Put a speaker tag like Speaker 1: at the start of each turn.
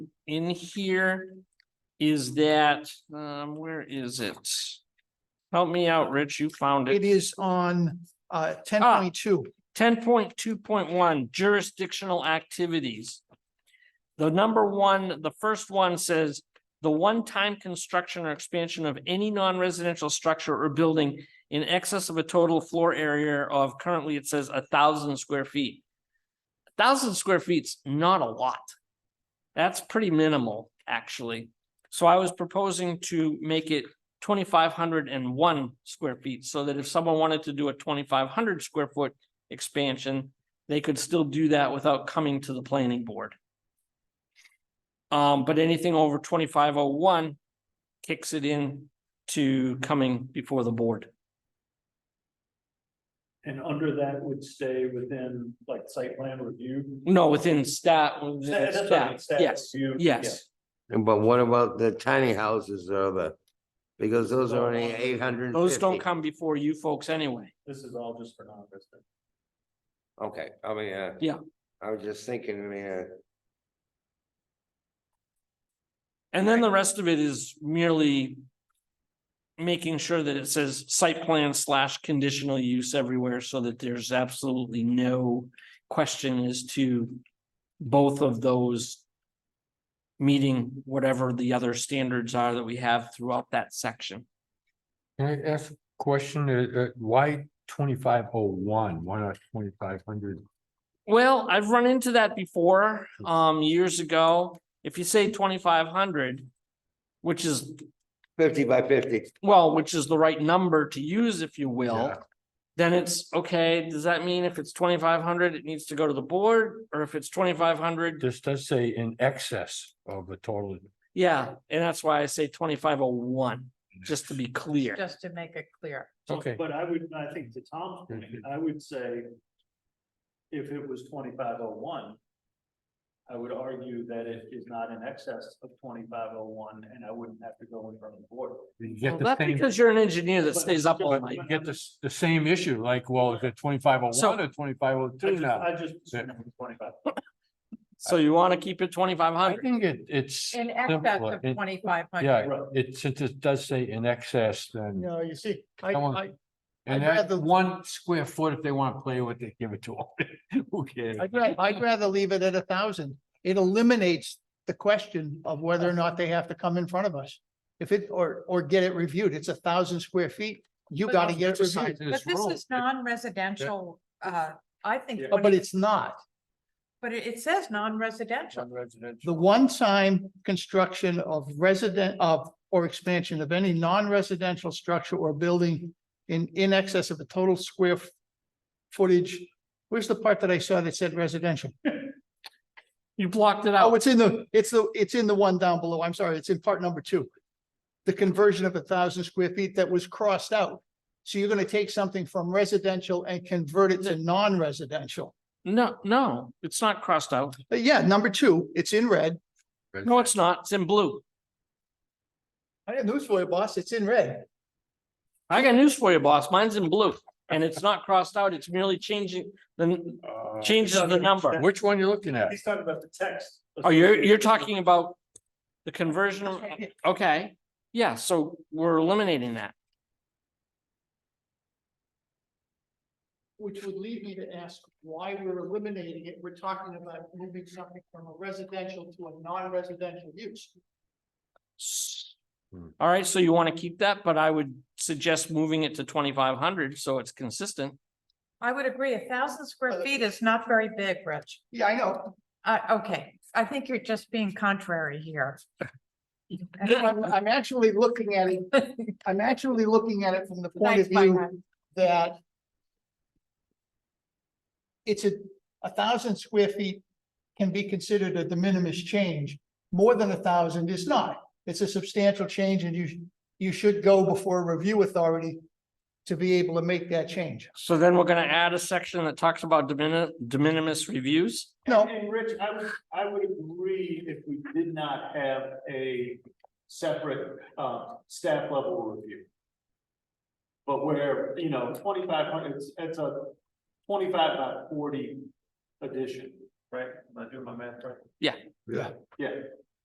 Speaker 1: in here is that, um, where is it? Help me out, Rich, you found
Speaker 2: It
Speaker 1: it.
Speaker 2: is on uh ten
Speaker 3: Ah.
Speaker 2: point two.
Speaker 1: Ten point two point one jurisdictional activities. The number one, the first one says, the one-time construction or expansion of any non-residential structure or building in excess of a total floor area of currently it says a thousand square feet. A Thousand square feet's not a lot. That's pretty minimal, actually. So I was proposing to make it twenty-five hundred and one square feet so that if someone wanted to do a twenty-five hundred square foot expansion, they could still do that without coming to the planning board. Um, but anything over twenty-five oh one kicks it in to coming before the board.
Speaker 4: And under that would stay within like site plan review?
Speaker 1: No, within stat, within
Speaker 4: Sta- that's what I mean,
Speaker 1: stat,
Speaker 4: stat
Speaker 1: Mm, yes,
Speaker 4: review,
Speaker 1: yes.
Speaker 5: But what about the tiny houses or the, because those are only eight hundred and fifty?
Speaker 1: Those don't come before you folks anyway.
Speaker 4: yeah. This is all just for non-resident.
Speaker 5: Okay, I mean, uh.
Speaker 1: Yeah.
Speaker 5: I was just thinking, I mean, uh,
Speaker 1: And then the rest of it is merely making sure that it says site plan slash conditional use everywhere so that there's absolutely no question as to both of those meeting whatever the other standards are that we have throughout that section.
Speaker 3: Can I ask a question? Uh, uh, why twenty-five oh one? Why not twenty-five hundred?
Speaker 1: Well, I've run into that before, um, years ago. If you say twenty-five hundred, which is,
Speaker 5: fifty by fifty.
Speaker 1: well, which is the right number to use, if you will,
Speaker 3: Yeah.
Speaker 1: then it's, okay, does that mean if it's twenty-five hundred, it needs to go to the board? Or if it's twenty-five hundred,
Speaker 3: This does say in excess of the total.
Speaker 1: yeah, and that's why I say twenty-five oh one, just to be clear.
Speaker 6: Just to make it clear.
Speaker 4: So-
Speaker 3: Okay.
Speaker 4: But I would, I think to Tom's point,
Speaker 1: Mm-hmm.
Speaker 4: I would say if it was twenty-five oh one, I would argue that it is not in excess of twenty-five oh one, and I wouldn't have to go in front of the board.
Speaker 3: You
Speaker 1: Well,
Speaker 3: get the
Speaker 1: That's
Speaker 3: same,
Speaker 1: because you're an engineer that
Speaker 4: But-
Speaker 1: stays up all
Speaker 4: but-
Speaker 1: night.
Speaker 3: you get the, s- the same issue, like, well, is it twenty-five oh
Speaker 1: So-
Speaker 3: one or twenty-five oh
Speaker 4: I
Speaker 3: two
Speaker 4: just-
Speaker 3: now?
Speaker 4: I just,
Speaker 3: Yeah.
Speaker 4: twenty-five.
Speaker 1: So you want to keep it twenty-five
Speaker 3: I
Speaker 1: hundred?
Speaker 3: think it, it's,
Speaker 6: In excess
Speaker 3: Simpler.
Speaker 6: of twenty-five hundred.
Speaker 3: yeah,
Speaker 4: Right.
Speaker 3: it, since it does say in excess, then.
Speaker 2: No, you see, I
Speaker 3: Come on.
Speaker 2: I I'd
Speaker 3: And that
Speaker 2: rather-
Speaker 3: one square foot, if they want to play with it, give it to them. Who cares?
Speaker 2: I'd rather, I'd rather leave it at a thousand. It eliminates the question of whether or not they have to come in front of us. If it, or, or get it reviewed, it's a thousand square feet, you
Speaker 6: But
Speaker 2: gotta
Speaker 6: that's
Speaker 2: get it
Speaker 3: the size
Speaker 2: reviewed.
Speaker 3: of
Speaker 6: But this
Speaker 3: room.
Speaker 6: is non-residential, uh, I think.
Speaker 4: Yeah.
Speaker 2: Oh, But
Speaker 6: 20
Speaker 2: it's not.
Speaker 6: But it, it says non-residential.
Speaker 2: The
Speaker 3: Non-residential.
Speaker 2: one-time construction of resident of, or expansion of any non-residential structure or building in, in excess of the total square f- footage. Where's the part that I saw that said residential?
Speaker 1: You blocked it
Speaker 2: Oh,
Speaker 1: out.
Speaker 2: it's in the, it's the, it's in the one down below. I'm sorry, it's in part number two. The conversion of a thousand square feet that was crossed out. So you're gonna take something from residential and convert it to non-residential.
Speaker 1: No, no, it's not crossed out.
Speaker 2: Uh, Yeah, number two, it's in red.
Speaker 1: No, it's not. It's in blue.
Speaker 2: I have news for you, boss. It's in red.
Speaker 1: I got news for you, boss. Mine's in blue and it's not crossed out. It's merely changing the,
Speaker 3: Uh,
Speaker 1: changes the number.
Speaker 3: Which one you looking at?
Speaker 4: He's talking about the text.
Speaker 1: Oh, you're, you're talking about the conversion. of- Okay, yeah, so we're eliminating that.
Speaker 2: Which would lead me to ask why we're eliminating it. We're talking about moving something from a residential to a non-residential use.
Speaker 3: Hmm.
Speaker 1: All right, so you want to keep that, but I would suggest moving it to twenty-five hundred so it's consistent.
Speaker 6: I would agree, a thousand square
Speaker 2: Uh,
Speaker 6: feet is not very big, Rich.
Speaker 2: Yeah, I know.
Speaker 6: Uh, okay, I think you're just being contrary here.
Speaker 2: I'm, I'm actually looking at it, I'm actually looking at it from the point of
Speaker 6: Thanks, my
Speaker 2: view
Speaker 6: friend.
Speaker 2: that it's a, a thousand square feet can be considered a de minimis change. More than a thousand is not. It's a substantial change and you, sh- you should go before a review authority to be able to make that change.
Speaker 1: So then we're gonna add a section that talks about de mini- de minimis reviews.
Speaker 2: No.
Speaker 4: And Rich, I would, I would agree if we did not have a separate, uh, staff level review. But where, you know, twenty-five hundred, it's, it's a twenty-five by forty addition, right? Am I doing my math right?
Speaker 1: Yeah.
Speaker 5: Yeah.
Speaker 4: Yeah,